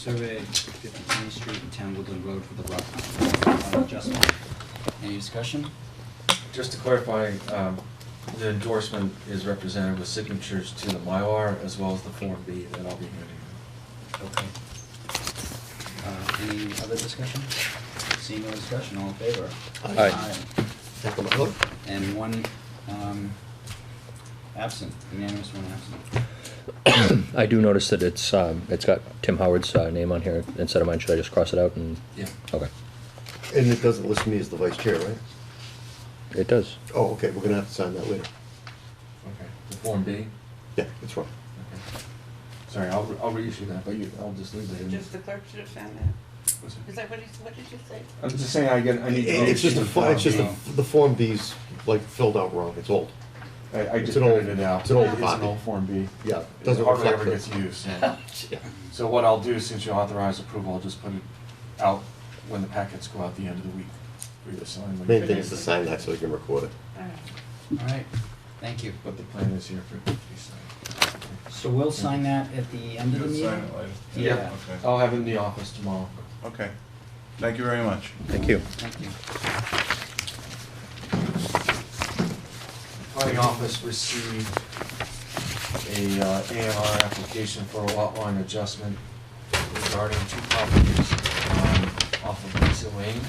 survey Fifty-three Street and Town Woodland Road for the rock uh, adjustment. Any discussion? Just to clarify, um, the endorsement is represented with signatures to the Mylar as well as the Form B that I'll be handing. Okay. Uh, any other discussion? Seeing no discussion, all in favor? Aye. Aye. And one, um, absent, unanimous one absent. I do notice that it's, um, it's got Tim Howard's, uh, name on here instead of mine, should I just cross it out and, Yeah. okay, And it doesn't list me as the vice chair, right? it does. Oh, okay, we're gonna have to sign that later. Okay. The Form B? Yeah, that's right. Okay. Sorry, I'll, re- I'll reissue that, but you, I'll just leave it in. Just the clerk should have found that. What's it? Is that what he, what did you say? I'm just saying, I get, I need. to It- It's just a, reissue the fi- it's just Form a, the Form B's like filled out wrong, it's old. B. I, I it's just an old- printed it out. it's an old It's copy. an old Form B. Yeah, it doesn't It hardly reflect ever it. gets used. Yeah. So what I'll do, since you authorized approval, I'll just put it out when the packets go out the end of the week. for you to sign when you- Main thing is to sign that so we can record it. All right. All right, thank you. But the plan is here for it to be signed. So we'll sign that at the end of the meeting? You'll sign it later. Yeah, Okay. I'll have it in the office tomorrow. Okay. Thank you very much. Thank you. thank you. Planning office received a uh, A and R application for a lot line adjustment regarding two properties um, off of Lisa Lane.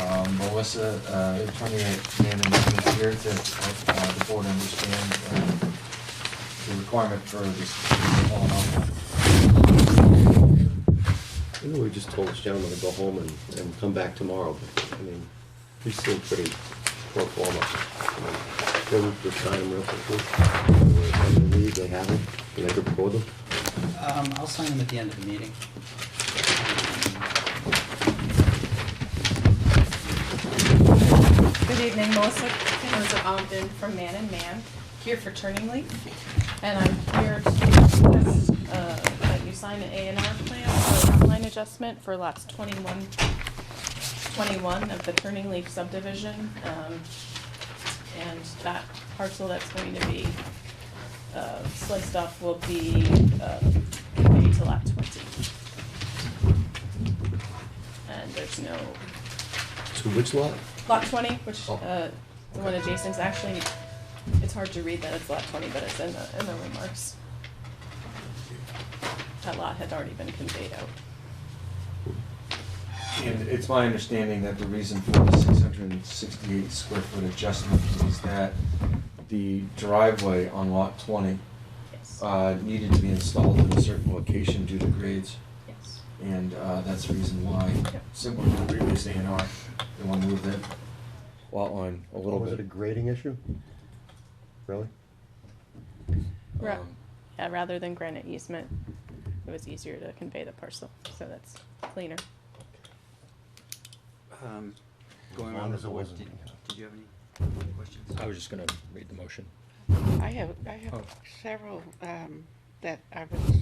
Um, Melissa, uh, attorney at Manning is here to help uh, the board understand um, the requirement for this uh, all in You know, we just told this gentleman to go home and, and come back tomorrow, but, I mean, he seemed pretty pro forma. I mean, They would just sign them real quickly. When they leave, they have them, and they could record them. Um, I'll sign them at the end of the meeting. Good evening, Melissa Kinzer Ogden from Man and Man, here for Turning Leaf. And I'm here to request uh, that you sign an A and R plan for lot line adjustment for lots 21, 21 of the Turning Leaf subdivision. um, And that parcel that's going to be uh, sliced off will be uh, conveyed to lot 20. And there's no So which lot? Lot twenty, which, Oh. uh, the one adjacent is actually, it's hard to read that it's lot twenty, but it's in the, in the remarks. That lot had already been conveyed out. And it's my understanding that the reason for the six hundred and sixty-eight square foot adjustment is that the driveway on lot twenty, Yes, uh, needed to be installed in a certain location due to grades, yes. and, uh, that's the reason why, Yep. similar to the previous A and R, they wanna move that lot line a little Was it a bit. grading issue? Really? Ra- Um, Yeah, rather than granite easement, it was easier to convey the parcel, so that's cleaner. Um, Going long around the as it board, wasn't- did did you have any questions? I was just gonna read the motion. I have, I have Oh. several, um, that I was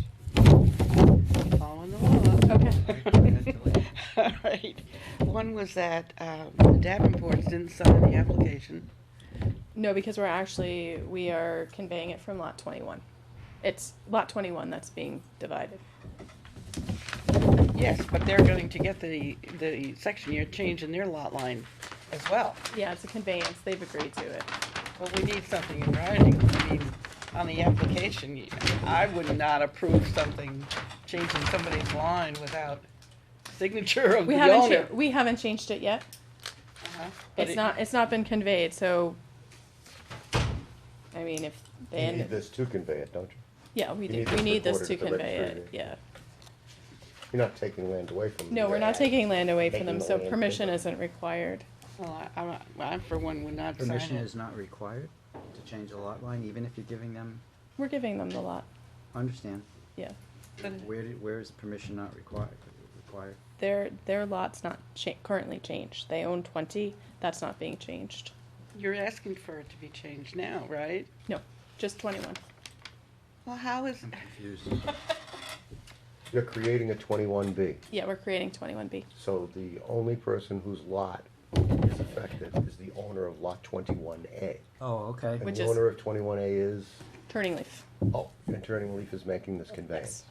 following the law. Okay. All right. One was that, um, the Davenports didn't sign the application. No, because we're actually, we are conveying it from lot twenty-one. It's lot twenty-one that's being divided. Yes, but they're going to get the, the section year change in their lot line as well. Yeah, it's a conveyance, they've agreed to it. Well, we need something in writing. I mean, on the application, I would not approve something, changing somebody's line without signature of We the haven't, owner. cha- we haven't changed it yet. Uh-huh. But It's it- not, it's not been conveyed, so, I mean, if they You need end, this to convey it, don't you? yeah, we you do, need we this need this to recorded at the convey it, registry. yeah. You're not taking land away from them. No, we're not taking land away from them, Taking so land. permission isn't required. Well, I, I'm- I, for one, would not sign Permission it. is not required to change a lot line, even if you're giving them, We're giving them the lot, understand, yeah. But where, did- where is permission not required, required? Their, their lot's not cha- currently changed. They own twenty, that's not being changed. You're asking for it to be changed now, right? No, just twenty-one. Well, how is, I'm confused. You're creating a twenty-one B, Yeah, we're creating twenty-one B. so the only person whose lot is affected is the owner of lot twenty-one A. Oh, okay, And Which the is- owner of twenty-one A is Turning leaf. Oh, and Turning Leaf is making this conveyance?